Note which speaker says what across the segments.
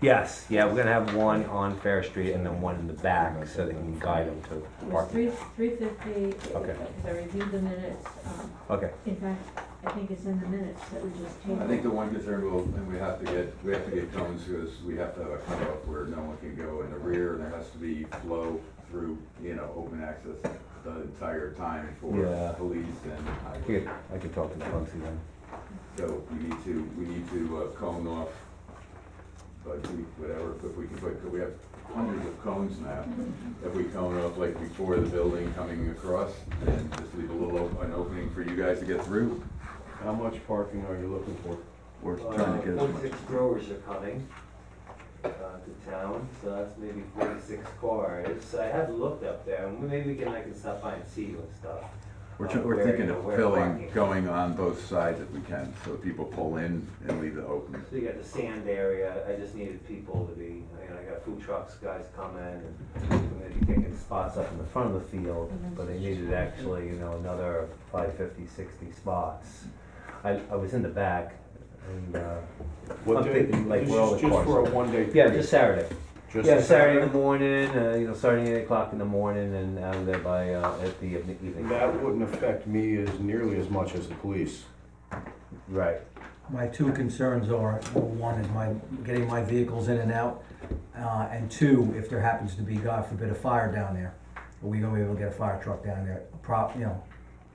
Speaker 1: Yes, yeah, we're gonna have one on Fair Street and then one in the back, so they can guide them to
Speaker 2: It was three,
Speaker 1: parking.
Speaker 2: three fifty,
Speaker 1: Okay.
Speaker 2: because I reviewed the minutes, um,
Speaker 1: Okay,
Speaker 2: in fact, I think it's in the minutes that we just tabled.
Speaker 3: I think the one concern will, and we have to get, we have to get cones, because we have to have a cutoff where no one can go in the rear, and there has to be flow through, you know, open access the entire time
Speaker 1: Yeah.
Speaker 3: for police and
Speaker 1: I
Speaker 3: highway.
Speaker 1: could, I could talk to Bugsy then.
Speaker 3: So we need to, we need to uh, cone off, but we, whatever, if we can put, we have hundreds of cones now. If we cone off like before the building coming across, and just leave a little, op- an opening for you guys to get through.
Speaker 4: How much parking are you looking for?
Speaker 3: We're trying to get as much.
Speaker 5: Forty-six growers are coming uh, to town, so that's maybe forty-six cars. So I have looked up there, and maybe we can, I can stop by and see you and stuff.
Speaker 3: We're,
Speaker 5: uh,
Speaker 3: tr- we're
Speaker 5: where,
Speaker 3: thinking
Speaker 5: you know,
Speaker 3: of
Speaker 5: where
Speaker 3: filling,
Speaker 5: parking.
Speaker 3: going on both sides if we can, so people pull in and leave the opening.
Speaker 5: So you got the sand area, I just needed people to be, you know, I got food trucks, guys coming, and I'm gonna be taking spots up in the front of the field, but they needed actually, you know, another five fifty, sixty spots. I, I was in the back, and, uh, I'm
Speaker 4: What day?
Speaker 5: thinking like
Speaker 4: This
Speaker 5: we're all
Speaker 4: is
Speaker 5: the
Speaker 4: Just for a
Speaker 5: cars.
Speaker 4: one day.
Speaker 5: yeah, just Saturday.
Speaker 4: Just
Speaker 5: Yeah,
Speaker 4: a
Speaker 5: Saturday in the morning, uh, you know, starting at eight o'clock in the morning and out of there by, uh, at the even- evening.
Speaker 4: That wouldn't affect me as nearly as much as the police.
Speaker 5: Right,
Speaker 6: My two concerns are, well, one is my, getting my vehicles in and out, uh, and two, if there happens to be, God forbid, a fire down there, are we gonna be able to get a fire truck down there, prop, you know,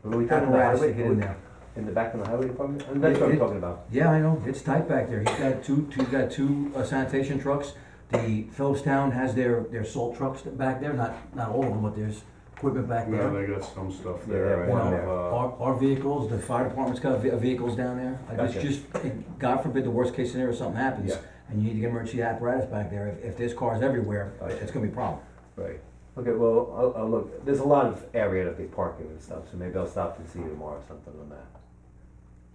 Speaker 5: Well, we talking about
Speaker 6: apparatus to
Speaker 5: highway-
Speaker 6: get in there?
Speaker 5: in the back of the highway department, and that's what I'm talking about.
Speaker 6: Yeah, I know, it's tight back there, he's got two, he's got two uh, sanitation trucks, the Phillips Town has their, their salt trucks back there, not, not all of them, but there's equipment back
Speaker 4: No,
Speaker 6: there.
Speaker 4: they got some stuff
Speaker 5: Yeah,
Speaker 4: there. I
Speaker 5: they have one
Speaker 4: have,
Speaker 5: there.
Speaker 4: uh,
Speaker 6: Our, our vehicles, the fire department's got ve- vehicles down there, I just,
Speaker 5: Gotcha.
Speaker 6: just, God forbid, the worst case scenario, something happens,
Speaker 5: Yeah.
Speaker 6: and you need to get emergency apparatus back there, if, if there's cars everywhere,
Speaker 5: Gotcha.
Speaker 6: it's gonna be a problem.
Speaker 5: Right. Okay, well, I'll, I'll look, there's a lot of area to be parking and stuff, so maybe I'll stop and see you tomorrow or something on that.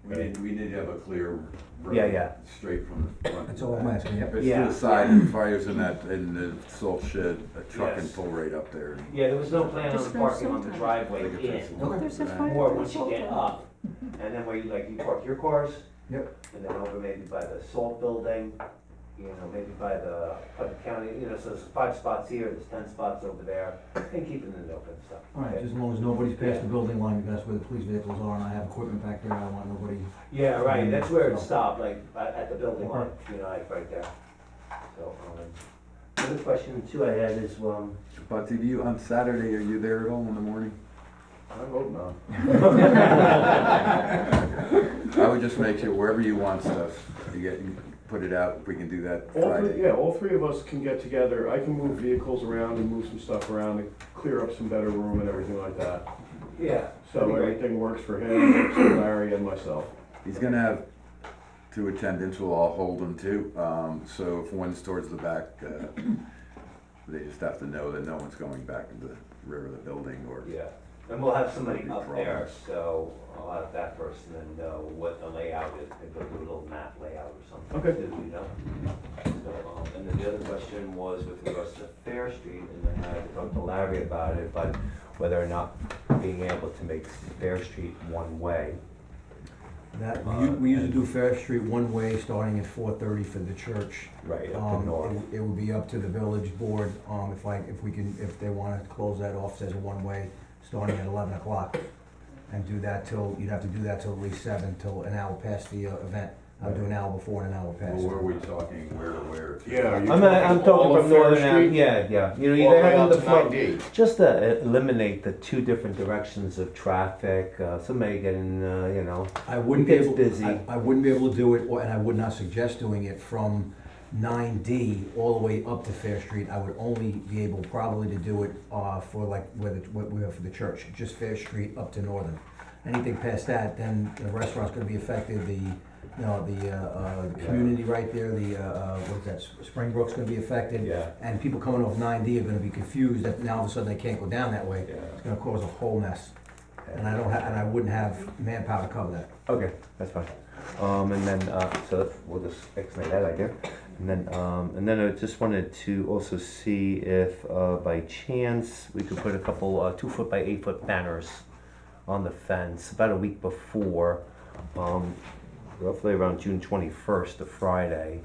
Speaker 3: We need, we need to have a clear road.
Speaker 5: Yeah, yeah.
Speaker 3: Straight from the front.
Speaker 6: That's all I'm asking, yep.
Speaker 3: If it's
Speaker 5: Yeah.
Speaker 3: to the side and the fire's in that, in the salt shed, a truck can
Speaker 5: Yes.
Speaker 3: pull right up there.
Speaker 5: Yeah, there was no plan
Speaker 2: Just go parking on the sometime.
Speaker 5: driveway
Speaker 3: Like if it's-
Speaker 2: There's a
Speaker 3: Right.
Speaker 2: fire.
Speaker 5: More once you get up, and then where you, like, you park your cars.
Speaker 6: Yep.
Speaker 5: And then over maybe by the salt building, you know, maybe by the Putnam County, you know, so there's five spots here, there's ten spots over there, and keeping it open and stuff.
Speaker 6: All right,
Speaker 5: okay?
Speaker 6: just as long as nobody's past the building line, because that's where the police vehicles are, and I have equipment back there, I don't want nobody.
Speaker 5: Yeah, right, that's where it
Speaker 6: So-
Speaker 5: stopped, like, at, at the building line, you know, like, right there. So, um, another question too I had is, um,
Speaker 3: Bugsy, do you, on Saturday, are you there at all in the morning?
Speaker 4: I hope not.
Speaker 3: I would just make sure wherever you want stuff, you get, you put it out, if we can do that
Speaker 4: All three,
Speaker 3: Friday.
Speaker 4: yeah, all three of us can get together. I can move vehicles around and move some stuff around and clear up some better room and everything like that.
Speaker 5: yeah. that'd
Speaker 4: So
Speaker 5: be great.
Speaker 4: everything works for him, works for Larry and myself.
Speaker 3: He's gonna have two attendants, we'll all hold them too, um, so if one's towards the back, uh, they just have to know that no one's going back into the rear of the building or.
Speaker 5: Yeah, and we'll have somebody
Speaker 3: No
Speaker 5: up
Speaker 3: problem.
Speaker 5: there, so I'll have that person and know what the layout is, and they'll do a little map layout or something.
Speaker 4: Okay.
Speaker 5: too, You know? So, um, and then the other question was with regards to Fair Street, and I had talked to Larry about it, but whether or not being able to make Fair Street one-way.
Speaker 6: That,
Speaker 5: Uh,
Speaker 6: we u- we usually do Fair Street one way, starting at four thirty for the church.
Speaker 5: Right. Up to
Speaker 6: Um, it
Speaker 5: north.
Speaker 6: w- it would be up to the village board, um, if I, if we can, if they wanna close that off as a one way, starting at eleven o'clock. And do that till, you'd have to do that till at least seven, till an hour past the uh, event, I would do an hour before and an hour past.
Speaker 3: Where are we talking, where to where?
Speaker 4: Yeah, are you
Speaker 5: I'm, I'm talking
Speaker 4: all of
Speaker 5: from
Speaker 4: Fair
Speaker 5: Northern Ave,
Speaker 4: Street?
Speaker 5: yeah, yeah, you know,
Speaker 4: All the
Speaker 5: either
Speaker 4: way out
Speaker 5: having the
Speaker 4: to
Speaker 5: flow.
Speaker 4: 9D.
Speaker 5: Just to eliminate the two different directions of traffic, uh, somebody getting, uh, you know,
Speaker 6: I wouldn't be
Speaker 5: It gets
Speaker 6: able,
Speaker 5: busy.
Speaker 6: I, I wouldn't be able to do it, or- and I would not suggest doing it from nine D all the way up to Fair Street. I would only be able probably to do it, uh, for like, where the, what we have for the church, just Fair Street up to Northern. Anything past that, then the restaurant's gonna be affected, the, you know, the, uh, uh, the community right there, the, uh, uh, what's that, Springbrook's gonna be affected.
Speaker 5: Yeah.
Speaker 6: And people coming off nine D are gonna be confused, that now all of a sudden they can't go down that way.
Speaker 5: Yeah.
Speaker 6: It's gonna cause a whole mess, and I don't, ha- and I wouldn't have manpower to cover that.
Speaker 5: Okay, that's fine. Um, and then, uh, so we'll just explain that idea. And then, um, and then I just wanted to also see if, uh, by chance, we could put a couple, uh, two foot by eight foot banners on the fence about a week before, um, roughly around June twenty-first, a Friday.